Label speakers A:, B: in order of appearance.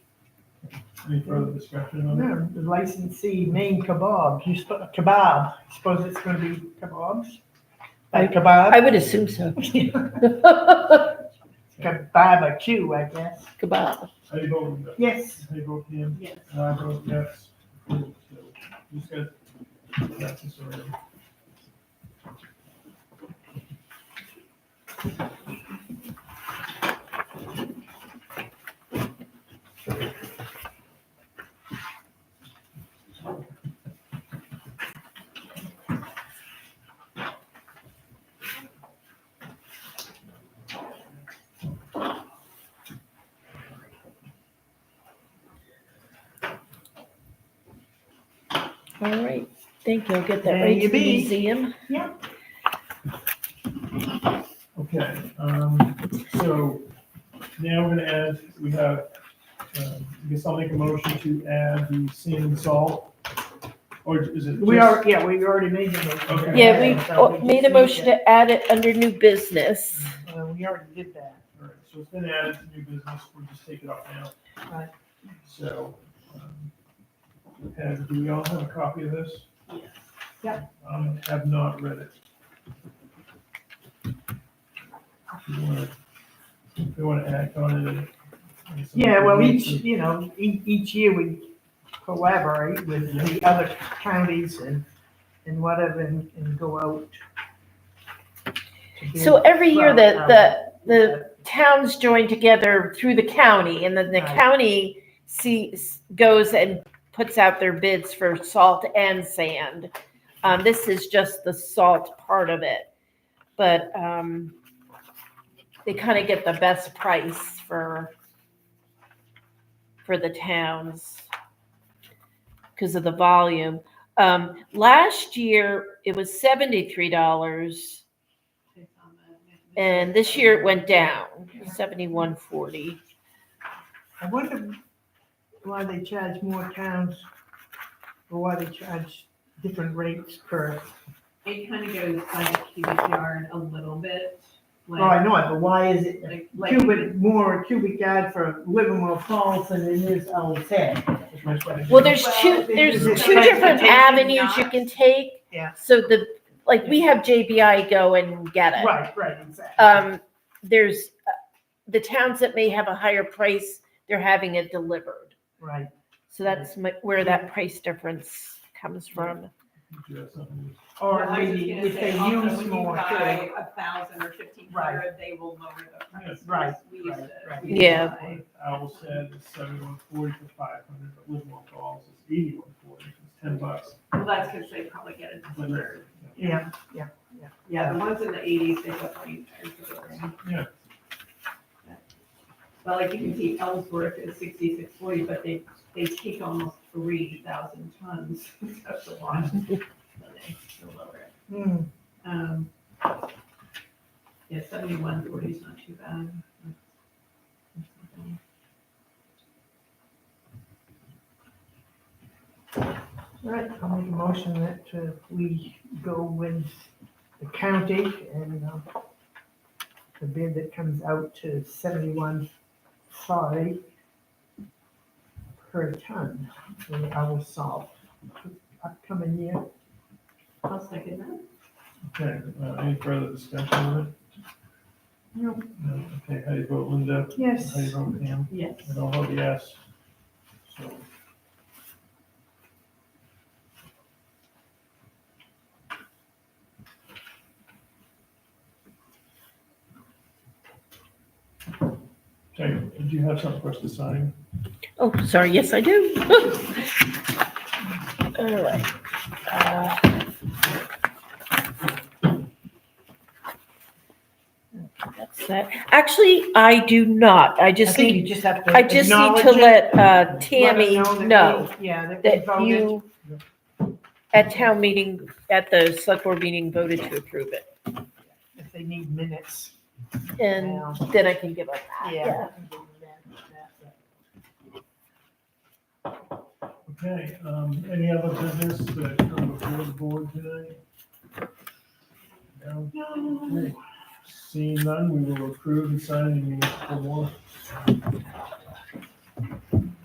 A: Any further discussion on that?
B: No, the licensee name kebab, you sp- kebab, suppose it's gonna be kebabs? Like
C: I
B: kebab?
C: would assume so.
B: Kebab, a chew, I guess.
C: Kebab.
A: How you vote? Linda?
B: Yes.
A: How you vote, Ian?
D: Yes.
A: And I vote yes. Cool. So You said that's a sort of-
C: All right, thank you. I'll get that
B: There
C: right
B: you
C: to the
B: be.
C: museum.
A: Okay, um, so now we're gonna add, we have, um, I guess I'll make a motion to add the sand and salt. Or is it?
B: We
A: just-
B: are, yeah, we already made the motion.
A: Okay.
C: Yeah, we
B: So
C: oh,
B: just
C: made a
B: need
C: motion to add it under new business.
B: Uh, we already did that.
A: All right, so it's been added to new business, we'll just take it off now.
B: Right.
A: So, um, have, do we all have a copy of this?
D: Yes.
A: Um, have not read it. If you wanna, if you wanna act on it. and-
B: Yeah, well, each, you know, each, each year we collaborate with the other counties and, and whatever, and, and go out. to do-
C: So every year
B: Well,
C: that the,
B: um,
C: the towns join together through the county and then the
B: Right.
C: county sees, goes and puts out their bids for salt and sand. Um, this is just the salt part of it, but, um, they kind of get the best price for, for the towns because of the volume. Um, last year it was seventy-three dollars. And this year it went down, seventy-one forty.
B: I wonder why they charge more towns, or why they charge different rates per,
D: It kind of goes by the cubic yard a little bit,
B: oh, I
D: like,
B: know it, but why is it
D: like, like,
B: cubic, more cubic yard for Livermore Falls than it is Old Said?
A: It's my question.
C: Well, there's
D: Well,
C: two,
B: they
C: there's
B: do
C: two
B: the
C: different
D: transportation
C: avenues you
D: not.
C: can take.
B: Yeah.
C: So the, like, we have JBI go and get it.
B: Right, right, exactly.
C: Um, there's, uh, the towns that may have a higher price, they're having it delivered.
B: Right,
C: So that's my- where that price difference comes from.
A: Do you have something?
B: or
D: Well, I was just
B: maybe
D: gonna
B: if
D: say
B: they
D: also,
B: use
D: when you
B: more, too.
D: buy A thousand or fifteen hundred, they will lower the price.
B: Right,
D: We used
B: right,
D: to-
B: right.
D: we used to
C: Yeah.
D: buy-
A: Owl said is seventy-one forty for five hundred, but Livermore Falls is eighty-one forty, it's ten bucks.
D: Well, that's because they probably get it delivered.
B: Yeah, yeah, yeah.
D: Yeah, the ones in the eighties, they definitely charge for delivery.
A: Yeah.
D: But like you can see Ellsworth is sixty-six forty, but they, they take almost three thousand tons. That's a lot. So they still lower it.
B: Hmm.
D: Um, yeah, seventy-one forty is not too bad.
B: All right, I'll make a motion that uh, we go with the county and um, the bid that comes out to seventy-one sorry per ton for our salt upcoming year.
D: I'll second that.
A: Okay, uh, any further discussion on it?
B: No.
A: No, okay, how do you vote, Linda?
B: Yes.
A: How do you vote, Pam?
D: Yes.
A: And I'll vote yes. So, Okay, did you have something for us to sign?
C: Oh, sorry, yes, I do. All right. Uh, That's that. Actually, I do not. I
B: I
C: just
B: think
C: need,
B: you just have to.
C: I just need
B: acknowledge
C: to
B: it,
C: let uh,
B: let them
C: Tammy
B: that
C: know
B: we- Yeah. we
C: that
B: voted.
C: you, at town meeting, at the select board meeting, voted to approve it.
B: If they need minutes.
C: And
B: Yeah.
C: then I can give up that.
B: Yeah.
A: Okay, um, any other business that come before the board today? No? Okay. Seeing none, we will approve and sign the municipal warrant.